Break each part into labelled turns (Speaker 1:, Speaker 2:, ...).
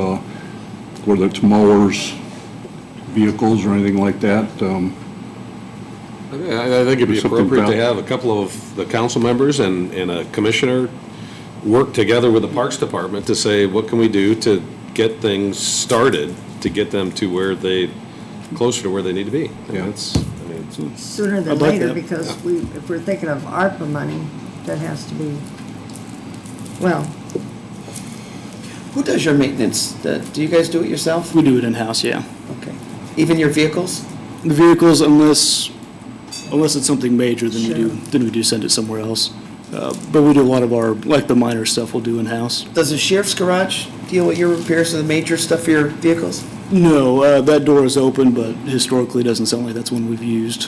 Speaker 1: uh, whether it's mowers, vehicles, or anything like that. um,
Speaker 2: I I think it'd be
Speaker 1: There's something
Speaker 2: appropriate to
Speaker 1: about-
Speaker 2: have a couple of the council members and, and a commissioner work together with the Parks Department to say, what can we do to get things started, to get them to where they, closer to where they need to be? And
Speaker 1: Yeah.
Speaker 2: that's, I mean, it's-
Speaker 3: sooner than
Speaker 4: I'd like
Speaker 3: later,
Speaker 4: that.
Speaker 3: because we, if we're thinking of ARPA money, that has to be, well,
Speaker 5: Who does your maintenance? Uh, Do you guys do it yourself?
Speaker 4: We do it in-house, yeah.
Speaker 5: Okay. Even your vehicles?
Speaker 4: The vehicles, unless, unless it's something major, then we do,
Speaker 3: Sure.
Speaker 4: then we do send it somewhere else. Uh, But we do a lot of our, like the minor stuff we'll do in-house.
Speaker 5: Does the sheriff's garage deal with your repairs of the major stuff for your vehicles?
Speaker 4: No, uh, that door is open, but historically, it doesn't sound like that's one we've used.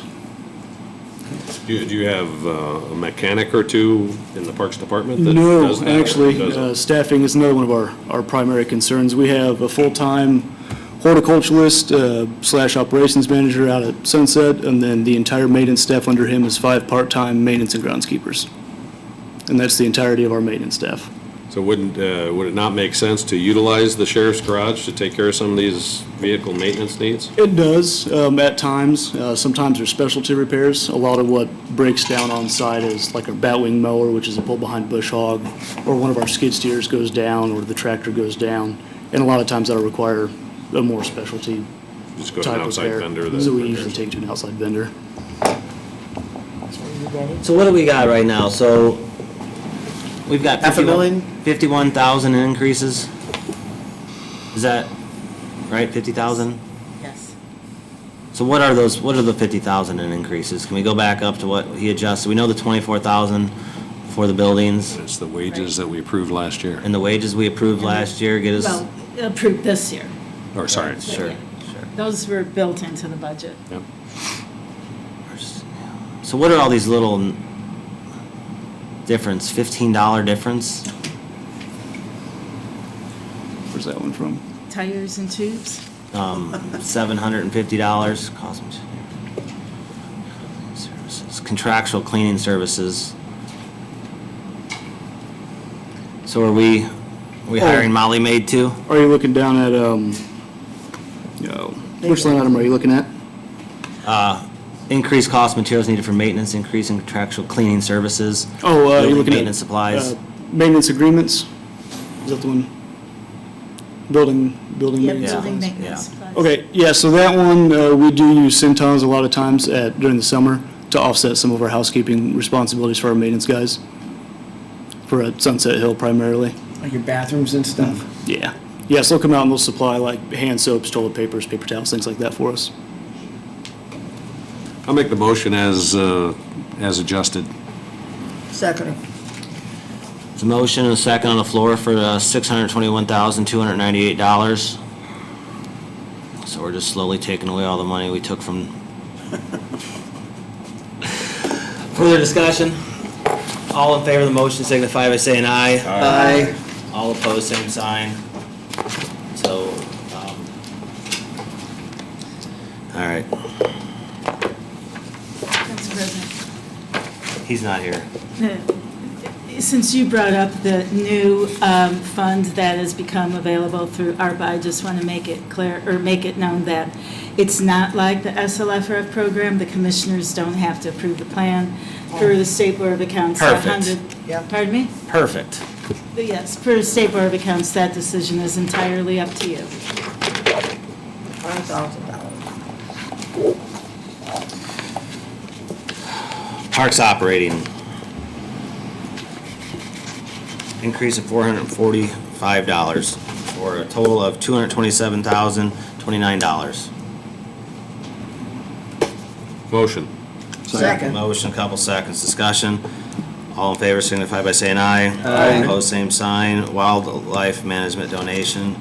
Speaker 2: do you- do you have uh, a mechanic or two in the Parks Department? that
Speaker 4: No,
Speaker 2: does that or
Speaker 4: actually,
Speaker 2: doesn't?
Speaker 4: uh, staffing is another one of our, our primary concerns. We have a full-time horticulturalist uh, slash operations manager out at Sunset, and then the entire maintenance staff under him is five part-time maintenance and groundskeepers. And that's the entirety of our maintenance staff.
Speaker 2: So wouldn't, uh, would it not make sense to utilize the sheriff's garage to take care of some of these vehicle maintenance needs?
Speaker 4: It does, um, at times. Uh, sometimes there's specialty repairs. A lot of what breaks down on site is like a batwing mower, which is a pull-behind bush hog, or one of our skid steers goes down, or the tractor goes down. And a lot of times that'll require a more specialty
Speaker 2: Just go to an
Speaker 4: type
Speaker 2: outside
Speaker 4: repair.
Speaker 2: vendor that.
Speaker 4: So we
Speaker 2: repairs
Speaker 4: usually
Speaker 2: it?
Speaker 4: take to an outside vendor.
Speaker 6: So what do we got right now? So we've got
Speaker 5: Half a
Speaker 6: 51
Speaker 5: million?
Speaker 6: 51,000 in increases. Is that right? 50,000?
Speaker 7: Yes.
Speaker 6: So what are those, what are the 50,000 in increases? Can we go back up to what he adjusted? We know the 24,000 for the buildings
Speaker 2: It's the wages that we approved last year,
Speaker 6: and the wages we approved last year get us.
Speaker 7: Well, approved this year.
Speaker 2: or sorry.
Speaker 6: Sure, sure.
Speaker 7: Those were built into the budget.
Speaker 2: Yep.
Speaker 6: So what are all these little n- difference, $15 difference?
Speaker 4: Where's that one from?
Speaker 7: Tires and tubes?
Speaker 6: um, seven hundred and fifty dollars, cost me. Services, Contractual cleaning services. So are we, we hiring Molly Maid too?
Speaker 4: Are you looking down at, um, no, which line item are you looking at?
Speaker 6: Increased cost materials needed for maintenance, increase in contractual cleaning services.
Speaker 4: Oh, uh, you're
Speaker 6: Building
Speaker 4: looking at.
Speaker 6: Maintenance supplies.
Speaker 4: uh, Maintenance agreements? Is that the one? Building, building
Speaker 7: Yeah,
Speaker 4: maintenance.
Speaker 7: building
Speaker 4: supplies.
Speaker 7: maintenance supplies.
Speaker 4: Okay, yeah, so that one, uh, we do use Centons a lot of times at, during the summer to offset some of our housekeeping responsibilities for our maintenance guys. For uh, Sunset Hill primarily,
Speaker 5: Like your bathrooms and stuff?
Speaker 4: yeah. Yes, they'll come out and they'll supply like hand soaps, toilet papers, paper towels, things like that for us.
Speaker 2: I'll make the motion as, uh, as adjusted.
Speaker 3: second,
Speaker 6: There's a motion and a second on the floor for uh, $621,298. So we're just slowly taking away all the money we took from. Further discussion? All in favor of the motion signify by saying aye.
Speaker 5: Aye.
Speaker 6: All opposed, same sign. So, um, all right,
Speaker 7: That's present.
Speaker 6: he's not here.
Speaker 7: Since you brought up the new um, fund that has become available through ARPA, I just want to make it clear, or make it known that it's not like the SLFRF program. The commissioners don't have to approve the plan
Speaker 6: Oh.
Speaker 7: through the State Board of Accounts. a
Speaker 6: Perfect.
Speaker 7: hundred-
Speaker 5: Yeah.
Speaker 7: Pardon me?
Speaker 6: Perfect.
Speaker 7: Yes, per State Board of Accounts, that decision is entirely up to you.
Speaker 3: one thousand dollars.
Speaker 6: Parks operating. Increase of four hundred and forty-five dollars, for a total of two hundred and twenty-seven thousand, twenty-nine dollars.
Speaker 2: Motion.
Speaker 3: Second.
Speaker 6: Motion, couple seconds, discussion. All in favor signify by saying aye.
Speaker 5: Aye.
Speaker 6: Opposed, same sign. Wildlife management donation,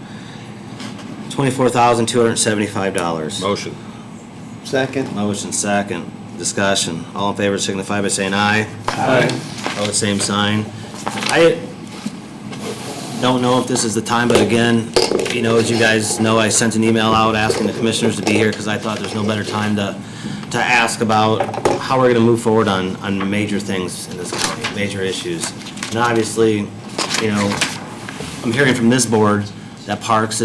Speaker 6: twenty-four thousand, two hundred and seventy-five dollars.
Speaker 2: Motion.
Speaker 5: Second.
Speaker 6: Motion second, discussion. All in favor signify by saying aye. Aye. All the same sign. I don't know if this is the time, but again, you know, as you guys know, I sent an email out asking the commissioners to be here because I thought there's no better time to, to ask about how we're gonna move forward on, on major things in this county, major issues. And obviously, you know, I'm hearing from this board that Parks